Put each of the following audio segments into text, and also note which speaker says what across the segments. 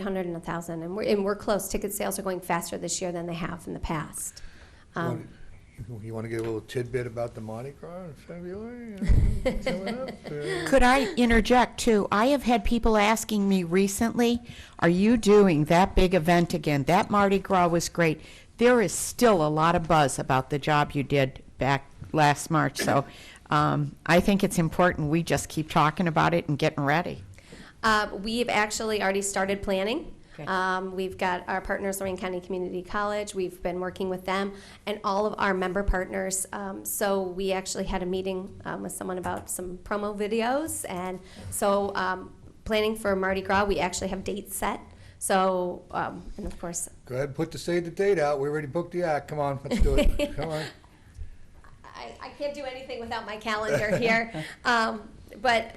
Speaker 1: hundred and a thousand, and we're, and we're close. Ticket sales are going faster this year than they have in the past. Um,
Speaker 2: You want to get a little tidbit about the Mardi Gras in February? uh, coming up, uh,
Speaker 3: Could I interject too? I have had people asking me recently, are you doing that big event again? That Mardi Gras was great. There is still a lot of buzz about the job you did back last March, so um, I think it's important we just keep talking about it and getting ready.
Speaker 1: Uh, we've actually already started planning.
Speaker 3: Okay.
Speaker 1: Um, we've got our partners, Lorraine County Community College. We've been working with them and all of our member partners. Um, so we actually had a meeting um, with someone about some promo videos, and so um, planning for Mardi Gras. We actually have dates set. So um, and of course,
Speaker 2: Go ahead, and put the, say the date out. We already booked the act. Come on, let's do it. Come on.
Speaker 1: I, I can't do anything without my calendar here. Um, but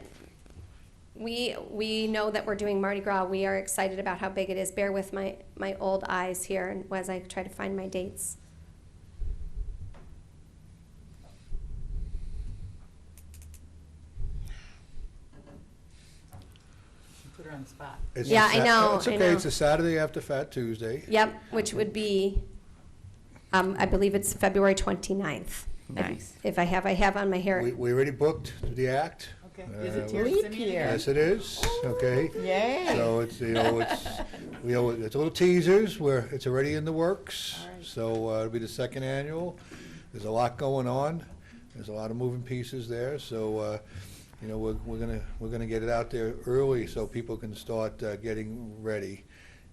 Speaker 1: we we know that we're doing Mardi Gras. We are excited about how big it is. Bear with my my old eyes here, and as I try to find my dates.
Speaker 4: Put her on the spot.
Speaker 2: It's
Speaker 1: Yeah,
Speaker 2: a
Speaker 1: I
Speaker 2: Sat-
Speaker 1: know,
Speaker 2: It's
Speaker 1: I
Speaker 2: okay,
Speaker 1: know.
Speaker 2: it's a Saturday after Fat Tuesday.
Speaker 1: Yep, which would be, um, I believe it's February 29th.
Speaker 3: Nice.
Speaker 1: If I have, I have on my hair.
Speaker 2: We, we already booked the act.
Speaker 4: Okay.
Speaker 2: Uh,
Speaker 4: Is it
Speaker 2: we-
Speaker 4: Terry
Speaker 3: leap
Speaker 4: Simeon
Speaker 3: year.
Speaker 4: again?
Speaker 2: Yes, it is, okay?
Speaker 3: Yay!
Speaker 2: So it's, you know, it's, we, owe- it's little teasers, where it's already in the works.
Speaker 4: All right.
Speaker 2: So uh, it'll be the second annual. There's a lot going on. There's a lot of moving pieces there, so, uh, you know, we're, we're gonna, we're gonna get it out there early so people can start uh, getting ready.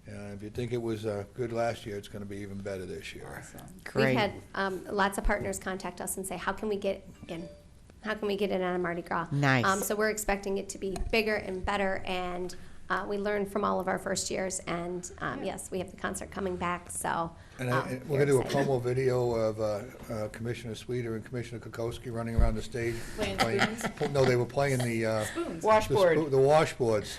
Speaker 2: Uh, If you think it was uh, good last year, it's gonna be even better this year.
Speaker 4: Awesome.
Speaker 1: We've had
Speaker 3: Great.
Speaker 1: um, lots of partners contact us and say, how can we get in? How can we get in on a Mardi Gras?
Speaker 3: Nice.
Speaker 1: Um, so we're expecting it to be bigger and better, and uh, we learned from all of our first years. And um, yes, we have the concert coming back, so.
Speaker 2: And I-
Speaker 4: Ah,
Speaker 1: um,
Speaker 2: and we're
Speaker 1: very
Speaker 2: gonna do a
Speaker 1: excited.
Speaker 2: promo video of uh, uh, Commissioner Sweeter and Commissioner Kokoski running around the stage.
Speaker 4: Playing spoons?
Speaker 2: No, they were playing the. uh,
Speaker 4: Spoons.
Speaker 3: Washboard.
Speaker 2: The, spoo- the washboards.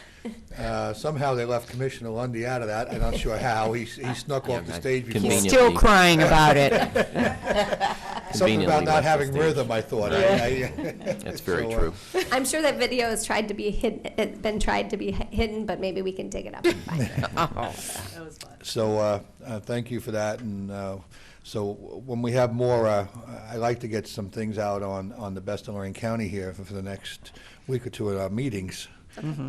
Speaker 2: Uh, somehow they left Commissioner Lundy out of that. I'm not sure how. He, s- he snuck off the
Speaker 5: Yeah,
Speaker 2: stage before.
Speaker 5: convenient.
Speaker 3: Still crying about it.
Speaker 2: Something about
Speaker 5: Conveniently
Speaker 2: not
Speaker 5: left the
Speaker 2: having
Speaker 5: stage.
Speaker 2: rhythm, I thought. I- I-
Speaker 5: That's very
Speaker 2: So, uh,
Speaker 5: true.
Speaker 1: I'm sure that video has tried to be hidden, it's been tried to be hi- hidden, but maybe we can dig it up and find it.
Speaker 4: That was fun.
Speaker 2: So, uh, uh, thank you for that, and, uh, so when we have more, uh, I like to get some things out on, on the best in Lorraine County here for for the next week or two at our meetings.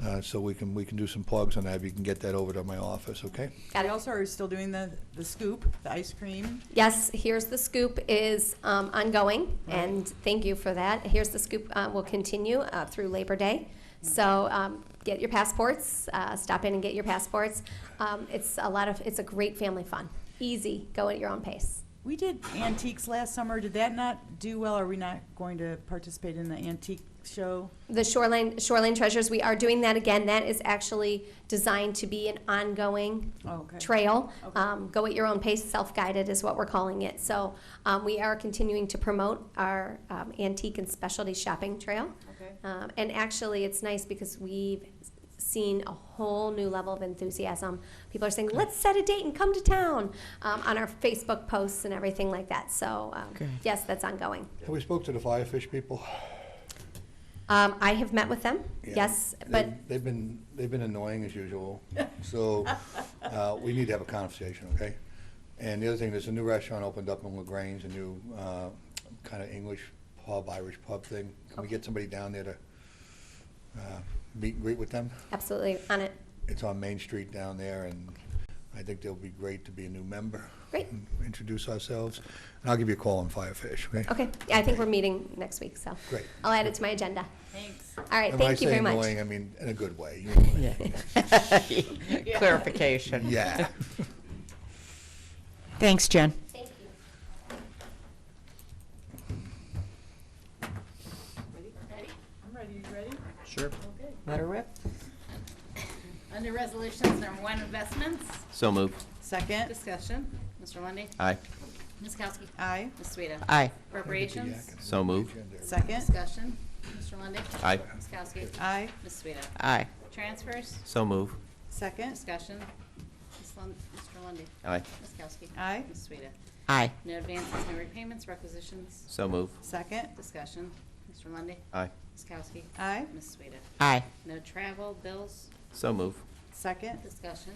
Speaker 2: Uh, so we can, we can do some plugs on that, if you can get that over to my office, okay?
Speaker 1: Got
Speaker 4: We
Speaker 1: it.
Speaker 4: also are still doing the, the scoop, the ice cream.
Speaker 1: Yes, Here's the Scoop is um, ongoing, and thank you for that. Here's the Scoop uh, will continue uh, through Labor Day. So um, get your passports, uh, stop in and get your passports. Um, It's a lot of, it's a great family fun, easy, go at your own pace.
Speaker 4: We did antiques last summer. Did that not do well? Are we not going to participate in the antique show?
Speaker 1: The Shoreline, Shoreline Treasures, we are doing that again. That is actually designed to be an ongoing
Speaker 4: Oh, okay.
Speaker 1: trail.
Speaker 4: Okay.
Speaker 1: Um, go at your own pace, self-guided is what we're calling it. So, um, we are continuing to promote our, um, antique and specialty shopping trail.
Speaker 4: Okay.
Speaker 1: Um, and actually, it's nice because we've seen a whole new level of enthusiasm. People are saying, let's set a date and come to town, um, on our Facebook posts and everything like that. So, um,
Speaker 3: Good.
Speaker 1: yes, that's ongoing.
Speaker 2: Have we spoke to the Firefish people?
Speaker 1: Um, I have met with them,
Speaker 2: Yeah.
Speaker 1: yes,
Speaker 2: They've-
Speaker 1: but
Speaker 2: They've been, they've been annoying as usual, so, uh, we need to have a conversation, okay? And the other thing, there's a new restaurant opened up in LaGrange, a new, uh, kind of English pub, Irish pub thing. Can we get somebody down there to, uh, meet and greet with them?
Speaker 1: absolutely on it.
Speaker 2: It's on Main Street down there, and I think they'll be great to be a new member.
Speaker 1: Great.
Speaker 2: and Introduce ourselves, and I'll give you a call on Firefish, okay?
Speaker 1: Okay, yeah, I think we're meeting next week, so.
Speaker 2: Great.
Speaker 1: I'll add it to my agenda.
Speaker 4: Thanks.
Speaker 1: All right, thank you very
Speaker 2: And when I
Speaker 1: much.
Speaker 2: say annoying, I mean in a good way.
Speaker 3: Clarification.
Speaker 2: Yeah.
Speaker 3: Thanks, Jen.
Speaker 1: Thank you.
Speaker 4: Ready? I'm ready. You ready?
Speaker 5: Sure.
Speaker 6: Okay.
Speaker 3: Let her rip.
Speaker 6: Under Resolutions, number one, investments.
Speaker 5: So move.
Speaker 4: Second.
Speaker 6: Discussion. Mr. Lundy.
Speaker 5: Aye.
Speaker 6: Ms. Kowski.
Speaker 4: Aye.
Speaker 6: Ms. Sueda.
Speaker 3: Aye.
Speaker 6: Appropriations.
Speaker 5: So moved.
Speaker 4: Second.
Speaker 6: Discussion. Mr. Lundy.
Speaker 5: Aye.
Speaker 6: Ms. Kowski.
Speaker 4: Aye.
Speaker 6: Ms. Sueda.
Speaker 3: Aye.
Speaker 6: Transfers.
Speaker 5: So move.
Speaker 4: Second.
Speaker 6: Discussion. Ms. Lund- Mr. Lundy.
Speaker 5: Aye.
Speaker 6: Ms. Kowski.
Speaker 4: Aye.
Speaker 6: Ms. Sueda.
Speaker 3: Aye.
Speaker 6: No advances, no repayments, requisitions.
Speaker 5: So move.
Speaker 4: Second.
Speaker 6: Discussion. Mr. Lundy.
Speaker 5: Aye.
Speaker 6: Ms. Kowski.
Speaker 4: Aye.
Speaker 6: Ms. Sueda.
Speaker 3: Aye.
Speaker 6: No travel, bills,
Speaker 5: So move.
Speaker 4: Second?
Speaker 6: Discussion.